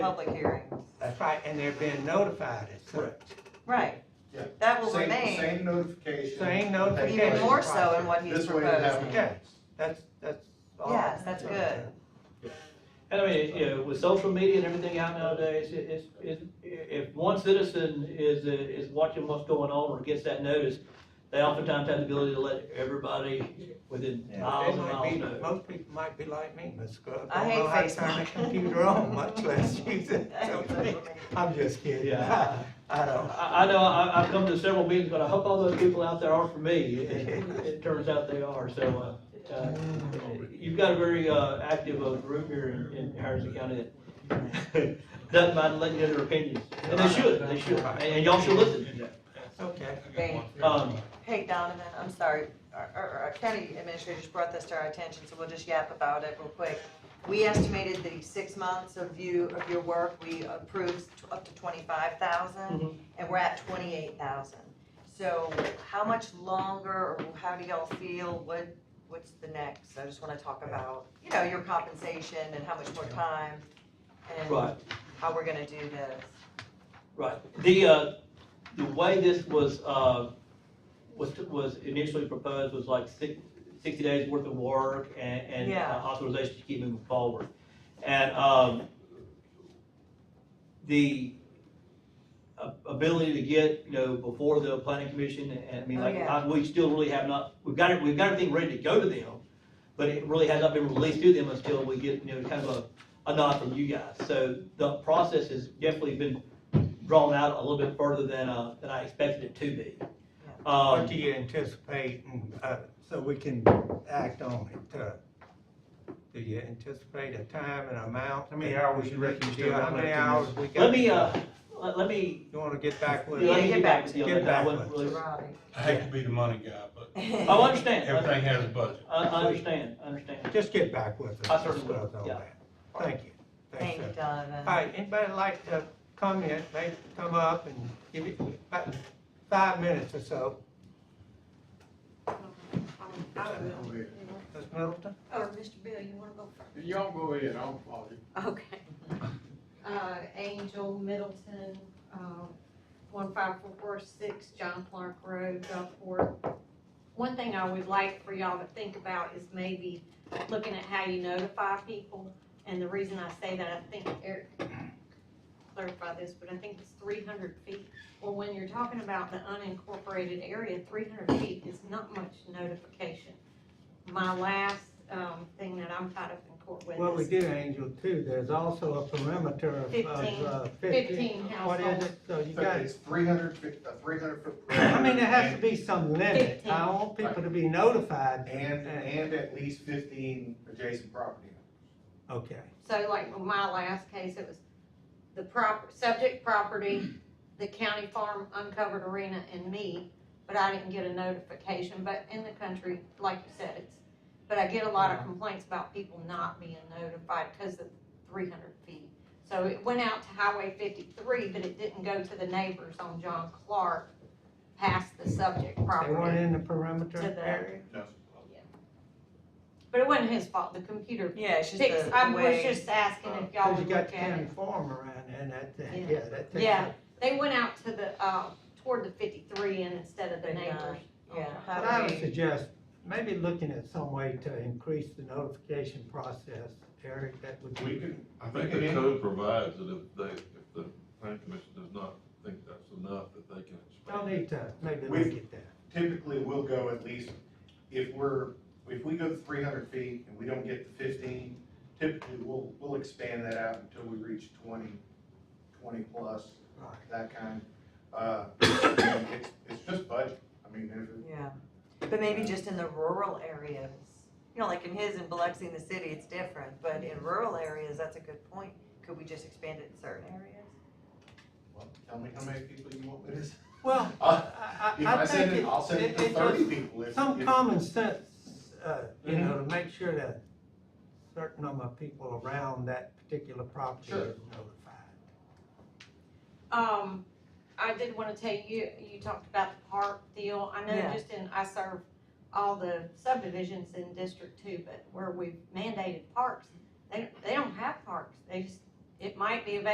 public hearing. That's right, and they're being notified as such. Right. Yeah. That will Same- remain, Same notification. Same notification. even more so in what he's This way it proposing. happened. Okay, that's, that's all. Yes, that's good. And I mean, you know, with social media and everything out nowadays, it- it's, it's, if one citizen is, uh, is watching what's going on or gets that notice, they oftentimes have the ability to let everybody within They miles and might be- miles know. Most people might be like me, Ms. Scruggs. I hate Don't know how to turn Facebook. the computer on, much less use it. I hate Facebook. I'm just kidding. Yeah. I I, don't. I know, I, I've come to several meetings, but I hope all those people out there are for me. It, it turns out they are, so, uh, uh, you've got a very, uh, active uh, group here in, in Harrison County that doesn't mind letting you know their opinions. And they should, they should, and and y'all should listen. Okay. Thank- Um, Hey Donovan, I'm sorry, our, our, our county administrators brought this to our attention, so we'll just yap about it real quick. We estimated the six months of you, of your work, we approved t- up to twenty-five thousand, Mhm. and we're at twenty-eight thousand. So how much longer, or how do y'all feel, what, what's the next? I just wanna talk about, you know, your compensation and how much more time, Right. and how we're gonna do this. Right, the, uh, the way this was, uh, was, was initially proposed was like six, sixty days worth of work and, and Yeah. uh, authorization to keep moving forward. And, um, the a- ability to get, you know, before the planning commission, and I mean, Oh, like, yeah. I- we still really have not, we've got it, we've got everything ready to go to them, but it really has not been released to them until we get, you know, kind of a, a nod from you guys. So the process has definitely been drawn out a little bit further than, uh, than I expected it to be. What Um, do you anticipate, and, uh, so we can act on it? uh, Do you anticipate a time and amount? How many hours you reckon you still How got left in many this? hours we got? let me, uh, let, let me, You wanna get back with? let Yeah, me get get back back with you on with- get that, I back wouldn't with really, Robbie. I hate to be the money guy, but oh, I understand, everything has a budget. I, I understand, I understand. Just get back with us. I certainly will, Discuss all yeah. that. Thank you. Thank sir. you, Donovan. All right, anybody like to comment, they come up and give it about five minutes or so. Ms. Middleton? Or Mr. Bill, you wanna go Y'all go ahead, I'll follow you. first? Okay. Uh, Angel Middleton, uh, one five four four six John Clark Road, Gulfport. One thing I would like for y'all to think about is maybe looking at how you notify people. And the reason I say that, I think Eric clarified this, but I think it's three hundred feet. Well, when you're talking about the unincorporated area, three hundred feet is not much notification. My last, um, thing that I'm tied up in court with is. Well, we did Angel too, there's also a perimeter of, of uh, fifteen. Fifteen What is households. it, so you got, It's three hundred feet, a three hundred foot. I mean, there has to be some limit, I Fifteen. want people to be notified. And, and at least fifteen adjacent property. Okay, So like with my last case, it was the proper, subject property, the county farm uncovered arena and me, but I didn't get a notification, but in the country, like you said, it's, but I get a lot of complaints about people not being notified because of three hundred feet. So it went out to Highway fifty-three, but it didn't go to the neighbors on John Clark past the subject they weren't property. in the To perimeter the- area? But it wasn't his fault, the computer Yeah, it's just fixed, the I the was way. just asking if y'all Oh, Cause you would got look at county it. farm around there, and that, that- Yeah. yeah, that takes. Yeah. up- They went out to the, uh, toward the fifty-three end instead of the Big neighbors. Yeah. What I how do would we- suggest, maybe looking at some way to increase the notification process, Eric, that would We be. can, I I think the code provides that if they, if the planning commission does not think that's enough, that they can Don't expand. need to, maybe We- look at that. Typically, we'll go at least, if we're, if we go to three hundred feet and we don't get to fifteen, typically, we'll, we'll expand that out until we reach 20, 20 plus, Right. that kind. Uh, it's, it's just budget, I mean, there's, Yeah, but maybe just in the rural areas, you know, like in his, in Biloxi, in the city, it's different, but in rural areas, that's a good point. Could we just expand it in certain areas? well, tell me how many people you want with this. Well, Uh, I, If I- I I send think it, it, I'll send it it, to it thirty just, people. if- some if- Mm-hmm. common sense, uh, you know, to make sure that certain number of people around that particular property Sure. is notified. Um, I did wanna tell you, you talked about the park deal, I know Yeah. just in, I serve all the subdivisions in District Two, but where we've mandated parks, they, they don't have parks, they just, it might be available